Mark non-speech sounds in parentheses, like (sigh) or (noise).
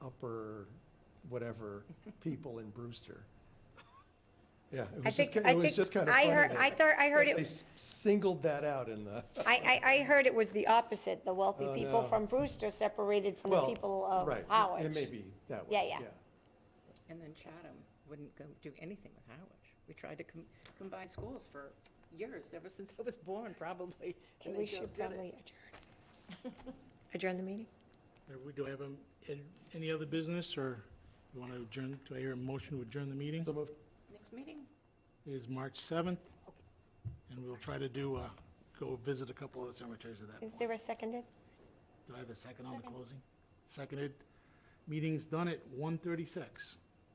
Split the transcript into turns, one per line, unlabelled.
upper whatever people in Brewster. (laughs) Yeah, it
I
was just,
think-
ki-
I
it was
think
just kind of
I
funny.
heard-
that-
I thought- I heard
that
it-
They s- singled that out in the,
I, I, I heard it was the opposite, the wealthy
Oh,
people
no.
from Brewster separated from the
well,
people of
right, it-
Howard.
it may be that
Yeah,
way,
yeah.
yeah.
And then Chatham wouldn't go do anything with Howard. We tried to com- combine schools for years, ever since I was born,
Okay,
probably. and they
We
just
should
did it.
probably adjourn. Adjourn the meeting?
Are we, do I have um, an- any other business, or you want to adjourn, do I hear a motion to adjourn the meeting?
So moved.
Next meeting?
It is March 7th, and we'll try to do, uh, go visit a couple of the cemeteries at that
Is
point.
there a seconded?
Do I have a second on the closing? Seconded. Meeting's done at 1:36.